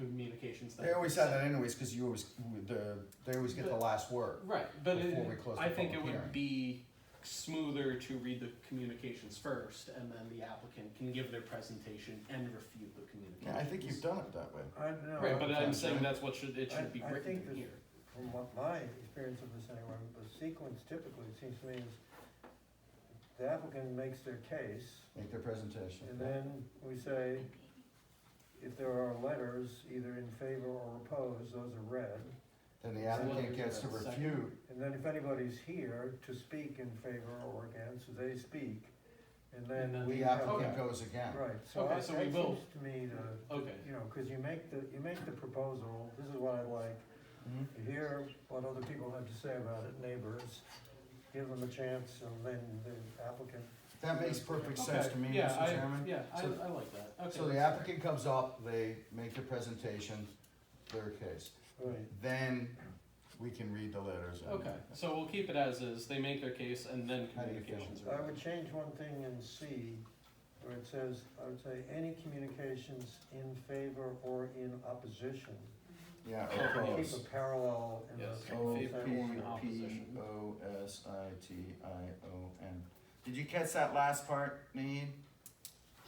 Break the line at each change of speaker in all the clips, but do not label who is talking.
communications thing.
They always have that anyways, because you always, the, they always get the last word.
Right, but it,
Before we close the
I think
public
it
hearing.
would be smoother to read the communications first, and then the applicant can give their presentation and refute the
Yeah,
communications.
I think you've done it that way.
I don't know.
Right, but I'm
Sometimes,
saying
right?
that's what should, it
I-
should be
I
written
think
in
that-
here.
From what my experience of this anyway, the sequence typically, it seems to me, is the applicant makes their case,
Make their presentation.
and then we say, if there are letters either in favor or opposed, those are read.
Then the
So what
applicant
is
gets to
that second?
refute,
And then if anybody's here to speak in favor or against, they speak,
And
and then
then
we
the
have.
Okay.
applicant goes again.
Right, so
Okay,
I, that
so we will-
seems to me to,
Okay,
you know, cause you make the, you make the proposal, this is what I like,
Mhm.
You hear what other people have to say about it, neighbors, give them a chance, and then the applicant,
That makes perfect sense
okay,
to me,
yeah,
Mr.
I,
Chairman.
yeah, I, I
So-
like that, okay.
So the applicant comes up, they make the presentation, their case.
right,
Then we can read the letters. and-
Okay, so we'll keep it as is, they make their case and then
How do you feel?
communications
I
are.
would change one thing in C, where it says, I would say, any communications in favor or in opposition.
Yeah,
Yeah.
Keep a
opposed.
parallel in
Yes.
the.
O P
Favor or in opposition.
P O S I T I O N. Did you catch that last part, Naeem?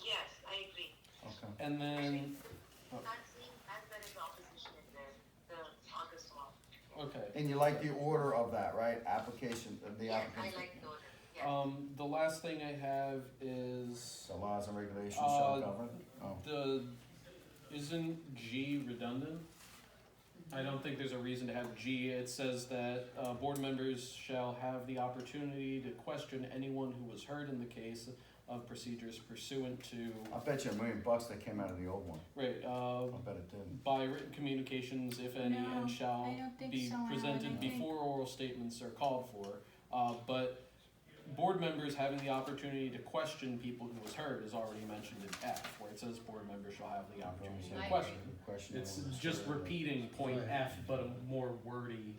Yes, I agree.
Okay.
And then,
Not seeing as there is opposition in there, the August one.
okay,
And you like the order of that, right? Application, of the
Yes, I
applicant.
like those, yes.
um, the last thing I have is
The laws and regulations shall
Uh,
govern. Oh,
the, isn't G redundant? I don't think there's a reason to have G, it says that, uh, board members shall have the opportunity to question anyone who was heard in the case of procedures pursuant to,
I bet you a million bucks that came out of the old one.
right, uh,
I bet it didn't.
by written communications, if any,
No,
and shall
I don't think
be
so, Alan. I
presented
think-
before oral statements are called for. Uh, but board members having the opportunity to question people who was heard is already mentioned in F, where it says board members shall have the opportunity
I
to
agree.
question.
Question.
It's
of-
just repeating point
Right.
F, but a more wordy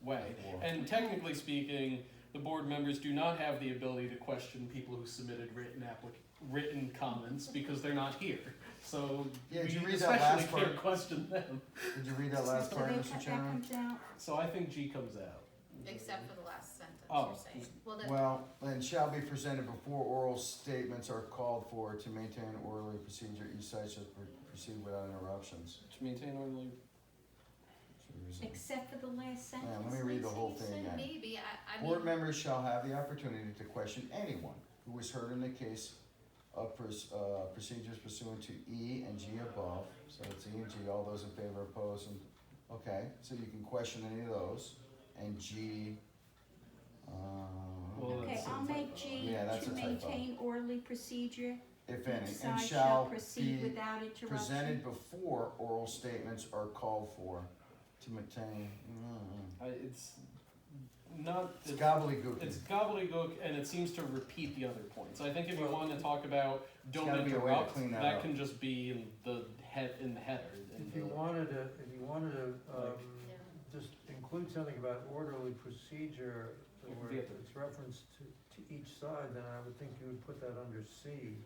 way.
Or-
And technically speaking, the board members do not have the ability to question people who submitted written applic- written comments because they're not here. So
Yeah,
we
did you read that
especially
last
can't
part?
question them.
Did you read that last
So
part,
they
Mr.
cut- that
Chairman?
comes out.
So I think G comes out.
Except for the last sentence
Oh.
you're saying. Well, the,
Well, and shall be presented before oral statements are called for to maintain an orderly procedure. Each side shall pr- proceed without interruptions.
To maintain orderly.
Should we resume?
Except for the last
Yeah,
sentence.
let me read the whole
so
thing again.
maybe, I, I mean,
Board members shall have the opportunity to question anyone who was heard in the case of pers- uh, procedures pursuant to E and G above. So it's E and G, all those in favor, opposed, and, okay, so you can question any of those. And G, uh,
Well,
Okay,
that's a
I'll
typo.
make G
Yeah, that's
to
a typo.
maintain orderly procedure.
if
Each
any, and
side
shall
proceed
be
without interruption.
presented before oral statements are called for to maintain. Mm,
I, it's not.
It's gobbledygook.
it's gobbledygook, and it seems to repeat the other points. I think if you
Well-
want to talk about don't
gotta be a way to
interrupt,
clean that
that
up.
can just be in the head in the header. in
If you
the-
wanted to, if you wanted to, um,
Yeah.
just include something about orderly procedure, where
Yeah.
it's referenced to, to each side, then I would think you would put that under C.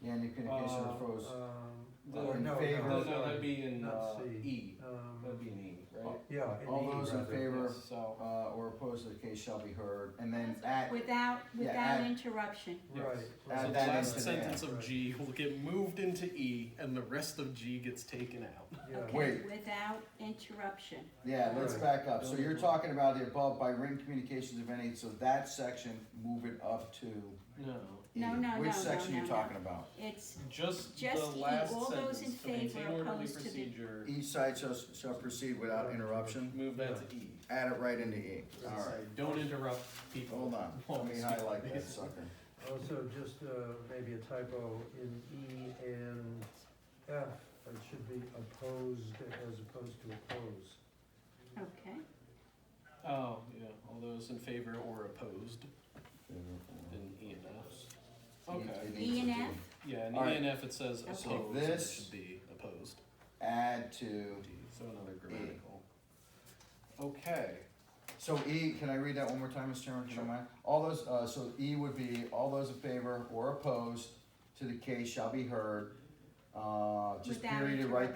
Yeah, and you can, in case
Uh,
of those,
Um,
The-
or
In
no,
no,
favor-
no,
no, that'd
sorry.
be in
not
uh,
C.
E. That'd be
Um,
in E, right?
yeah. in
all
E
those in
rather.
favor,
Yes, so
uh, or opposed to the case shall be heard, and then at,
Without,
Yeah,
without
add-
interruption.
Yes.
Right.
Add
so
right.
the
that
last
into there.
sentence of
Right.
G will get moved into E, and the rest of G gets taken out.
Yeah.
Okay,
Wait.
Without interruption.
yeah, let's
Right.
back up, so you're talking about the above by written communications of any, so that section, move it up to
No,
E.
No, no,
Which
no,
section
no,
you
no,
talking about?
It's,
just,
Just
the
E,
last
all those
sentence
in
to maintain
favor
orderly
opposed to the-
procedure.
Each E side shall, shall proceed without interruption,
Move that to E.
add it right into E,
Does it
alright.
say, Don't interrupt people.
Hold on,
while
let me
speaking?"
highlight that sucker.
Also, just uh, maybe a typo in E and F, it should be opposed as opposed to oppose.
okay.
Oh, yeah, all those in favor or opposed in E and F. Okay,
It needs
E and
to be
F,
yeah, in E
All right.
and F it says
Okay.
opposed,
So
so it
this-
should be opposed,
Add to,
D, so another grammatical. Okay,
so E, can I read that one more time, Mr. Chairman, if you don't mind? All those, uh, so E would be, all those in favor or opposed to the case shall be heard, uh, just
Without
period it right